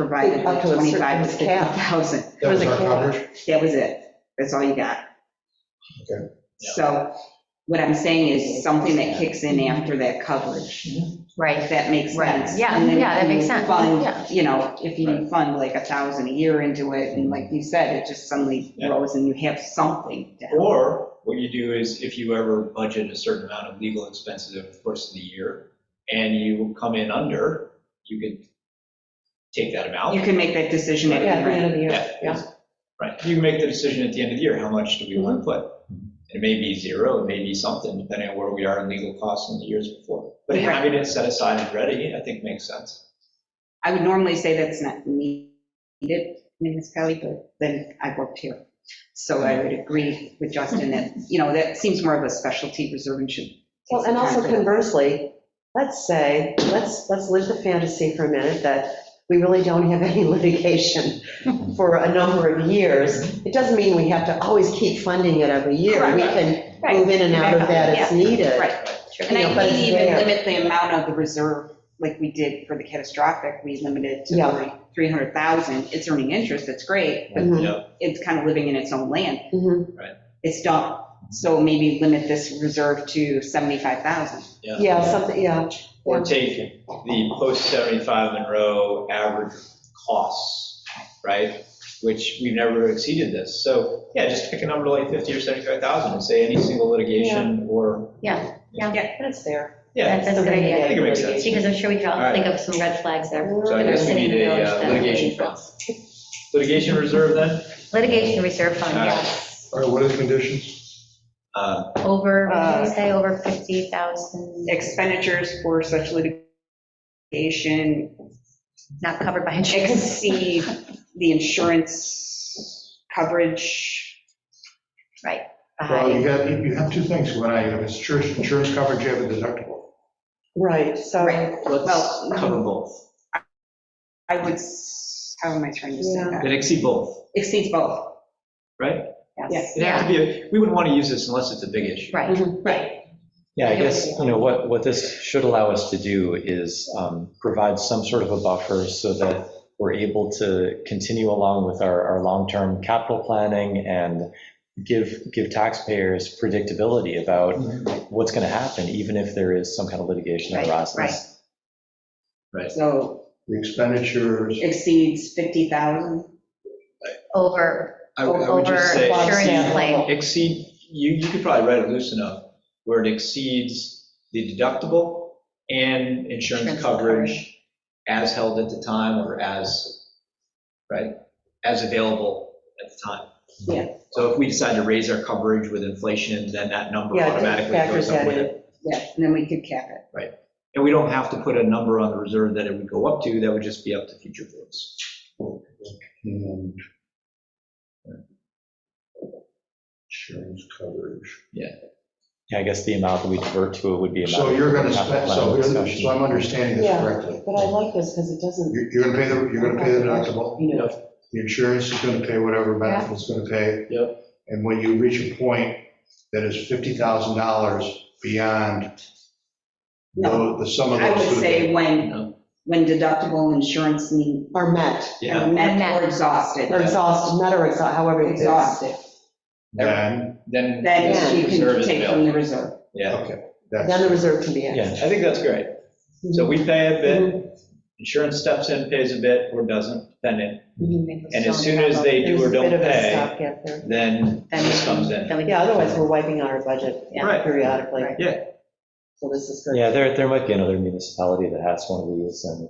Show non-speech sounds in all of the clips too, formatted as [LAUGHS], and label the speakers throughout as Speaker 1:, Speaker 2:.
Speaker 1: provided
Speaker 2: Up
Speaker 1: like
Speaker 2: to a certain
Speaker 1: 25 to
Speaker 2: cap.
Speaker 1: 50,000.
Speaker 3: That was
Speaker 2: was a
Speaker 3: our
Speaker 2: cap.
Speaker 3: coverage?
Speaker 1: That was it. That's all you got.
Speaker 3: Okay.
Speaker 1: So what I'm saying is something that kicks in after that coverage, if
Speaker 4: Right,
Speaker 1: that makes
Speaker 4: Right.
Speaker 1: sense.
Speaker 4: Yeah,
Speaker 1: And then
Speaker 4: yeah, that
Speaker 1: if you
Speaker 4: makes sense.
Speaker 1: fund,
Speaker 4: Yeah.
Speaker 1: You know, if you fund like a thousand a year into it, and like you said, it just suddenly
Speaker 5: Yeah.
Speaker 1: grows and you have something to help.
Speaker 5: Or what you do is if you ever budget a certain amount of legal expenses over the course of the year and you come in under, you could take that amount.
Speaker 1: You can make that decision at
Speaker 2: Yeah, at
Speaker 1: the
Speaker 2: the
Speaker 1: end.
Speaker 2: end of the year,
Speaker 5: Yeah,
Speaker 2: yeah.
Speaker 5: Right, you can make the decision at the end of the year, how much do we want
Speaker 1: Mm-hmm.
Speaker 5: to put? It may be zero, it may be something, depending on where we are in legal costs in the years before. But
Speaker 1: Right.
Speaker 5: having it set aside and ready, I think makes sense.
Speaker 1: I would normally say that's not needed in this municipality, but then I worked here. So I would agree with Justin that, you know, that seems more of a specialty reserve and should. take
Speaker 2: Well,
Speaker 1: some
Speaker 2: and
Speaker 1: time
Speaker 2: also
Speaker 1: for that.
Speaker 2: conversely, let's say, let's, let's live the fantasy for a minute that we really don't have any [LAUGHS] litigation for a number of years. It doesn't mean we have to always keep funding it every year. We can move in and out of that as needed.
Speaker 1: Right. And
Speaker 2: You
Speaker 1: I
Speaker 2: know, but
Speaker 1: didn't
Speaker 2: it's
Speaker 1: even
Speaker 2: there.
Speaker 1: limit the amount of the reserve, like we did for the catastrophic, we limited to
Speaker 2: Yeah.
Speaker 1: like 300,000. It's earning interest, that's great, but
Speaker 2: Mhm,
Speaker 5: Yeah,
Speaker 1: it's kind of living in its own land.
Speaker 2: mhm.
Speaker 1: It's done. So maybe limit this reserve to 75,000.
Speaker 2: Yeah, something, yeah.
Speaker 5: Or take the post 75 Monroe average costs, right? Which we've never exceeded this. So, yeah, just pick a number like 50 or 75,000 and say any single litigation or,
Speaker 4: yeah,
Speaker 2: But it's there.
Speaker 5: yeah.
Speaker 4: that's that's a good
Speaker 5: I
Speaker 4: idea.
Speaker 5: think it makes sense.
Speaker 4: Because I'm sure we could
Speaker 5: All
Speaker 4: all
Speaker 5: right.
Speaker 4: think of some red flags there.
Speaker 5: So I
Speaker 4: that are
Speaker 5: guess we
Speaker 4: sitting in
Speaker 5: need
Speaker 4: the
Speaker 5: a
Speaker 4: village
Speaker 5: uh,
Speaker 4: that-
Speaker 5: litigation fund. Litigation reserve then?
Speaker 4: Litigation reserve fund,
Speaker 5: All right.
Speaker 4: yes.
Speaker 3: All right, what are the conditions?
Speaker 5: Uh,
Speaker 4: Over, what did
Speaker 1: Uh,
Speaker 4: we say, over 50,000,
Speaker 1: Expenditures for such litigation
Speaker 4: not covered by insurance.
Speaker 1: exceed the insurance coverage.
Speaker 2: Uh,
Speaker 3: Well, you
Speaker 4: By-
Speaker 3: got, you have two things going on. You have insurance, insurance coverage, you have a deductible.
Speaker 2: Right, so,
Speaker 4: Right.
Speaker 1: Well,
Speaker 5: let's cover both.
Speaker 1: I would, s- how am I trying to say
Speaker 2: Yeah.
Speaker 1: that?
Speaker 5: It exceed both.
Speaker 1: Exceeds both.
Speaker 5: right?
Speaker 4: Yes,
Speaker 5: It'd have to
Speaker 4: yeah,
Speaker 5: be, a- we wouldn't want to use this unless it's a big issue.
Speaker 4: right.
Speaker 1: Right.
Speaker 6: Yeah, I guess, you know, what, what this should allow us to do is um, provide some sort of a buffer so that we're able to continue along with our, our long-term capital planning and give, give taxpayers predictability about what's going to happen, even if there is some kind of litigation that
Speaker 4: Right,
Speaker 6: arises.
Speaker 1: So
Speaker 3: The expenditures,
Speaker 1: exceeds 50,000.
Speaker 4: Over,
Speaker 5: I would I would
Speaker 4: over
Speaker 5: just say,
Speaker 4: insurance
Speaker 5: exceed-
Speaker 4: claim,
Speaker 5: exceed, you, you could probably write it loose enough where it exceeds the deductible and insurance
Speaker 4: Insurance
Speaker 5: coverage as held at the time or as, right, as available at the time.
Speaker 1: Yeah.
Speaker 5: So if we decide to raise our coverage with inflation, then that number
Speaker 2: yeah, it
Speaker 5: automatically
Speaker 2: factors
Speaker 5: goes up
Speaker 2: that
Speaker 5: with it.
Speaker 2: in.
Speaker 1: Yeah, and then we could cap it.
Speaker 5: And we don't have to put a number on the reserve that it would go up to, that would just be up to future votes.
Speaker 3: and insurance coverage.
Speaker 6: Yeah, I guess the amount that we divert to it would be. a
Speaker 3: So
Speaker 6: matter
Speaker 3: you're
Speaker 6: of
Speaker 3: going to
Speaker 6: capital
Speaker 3: spend, so,
Speaker 6: planning
Speaker 3: here-
Speaker 6: discussion.
Speaker 3: so I'm understanding this
Speaker 2: Yeah.
Speaker 3: correctly.
Speaker 2: But I like this because it doesn't,
Speaker 3: You're you're going to pay the, you're going to pay the deductible.
Speaker 2: you know,
Speaker 3: The insurance is going to pay whatever medical's going to pay.
Speaker 5: Yep.
Speaker 3: And when you reach a point that is $50,000 beyond
Speaker 1: No.
Speaker 3: the the sum of
Speaker 1: I
Speaker 3: those.
Speaker 1: would
Speaker 3: two-
Speaker 1: say when,
Speaker 5: No.
Speaker 1: when deductible insurance need
Speaker 2: are met,
Speaker 5: Yeah,
Speaker 1: are met
Speaker 4: Met.
Speaker 1: or exhausted.
Speaker 2: or exhausted, met or exhausted, however it's.
Speaker 1: Exhausted,
Speaker 3: Then,
Speaker 5: then.
Speaker 1: then you
Speaker 5: reserve
Speaker 1: can
Speaker 5: is
Speaker 1: take from
Speaker 5: available.
Speaker 1: the reserve.
Speaker 5: Yeah,
Speaker 3: okay.
Speaker 2: Then the
Speaker 3: That's,
Speaker 2: reserve can be
Speaker 6: Yeah.
Speaker 2: accessed.
Speaker 5: I think that's great. So we pay a bit,
Speaker 2: Mm-hmm.
Speaker 5: insurance steps in, pays a bit, or doesn't, depending. And as soon as they do or
Speaker 2: There's a
Speaker 5: don't
Speaker 2: bit of a
Speaker 5: pay,
Speaker 2: stopgap there.
Speaker 5: then
Speaker 4: then
Speaker 5: this comes
Speaker 4: we,
Speaker 5: in.
Speaker 4: then we.
Speaker 2: Yeah, otherwise we're wiping out our budget
Speaker 4: Yeah.
Speaker 5: Right.
Speaker 2: periodically.
Speaker 4: Right.
Speaker 5: Yeah.
Speaker 2: So this is good.
Speaker 6: Yeah, there, there might be another municipality that has one of these and.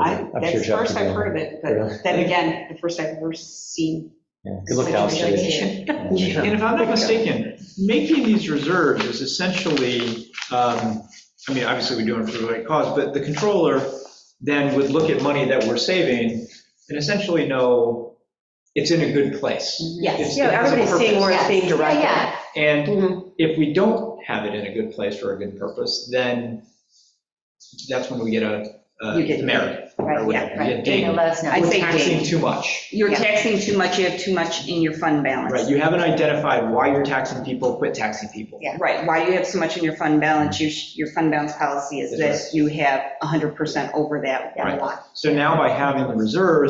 Speaker 1: I,
Speaker 6: I'm sure
Speaker 1: that's the
Speaker 6: Jeff
Speaker 1: first
Speaker 6: could
Speaker 1: I've
Speaker 6: go.
Speaker 1: heard of it, but then again, the first I've ever seen.
Speaker 6: Yeah, Good look
Speaker 1: such a
Speaker 6: downstairs.
Speaker 1: litigation.
Speaker 2: Yeah.
Speaker 5: And if I'm not mistaken, making these reserves is essentially, um, I mean, obviously we're doing it for the right cause, but the controller then would look at money that we're saving and essentially know it's in a good place.
Speaker 1: Yes.
Speaker 5: It's- it has a purpose.
Speaker 4: it's being directed. Yeah,
Speaker 5: And
Speaker 2: Mhm.
Speaker 5: if we don't have it in a good place for a good purpose, then that's when we get a, a
Speaker 1: You get-
Speaker 5: merit.
Speaker 4: right,
Speaker 5: or
Speaker 4: yeah.
Speaker 5: whatever. Yeah,
Speaker 1: right.
Speaker 5: date.
Speaker 4: Dana let us know.
Speaker 1: I'd
Speaker 5: We're
Speaker 1: say
Speaker 5: taxing
Speaker 1: date.
Speaker 5: too much.
Speaker 1: You're
Speaker 4: Yeah.
Speaker 1: taxing too much, you have too much in your fund
Speaker 5: Right,
Speaker 1: balance.
Speaker 5: you haven't identified why you're taxing people, quit taxing people.
Speaker 4: Yeah.
Speaker 1: Right, why do you have so much in your fund balance? You sh- Your fund balance policy is
Speaker 5: That's
Speaker 1: this, you have 100% over that
Speaker 4: Yeah.
Speaker 1: lot.
Speaker 5: So now by having the reserves,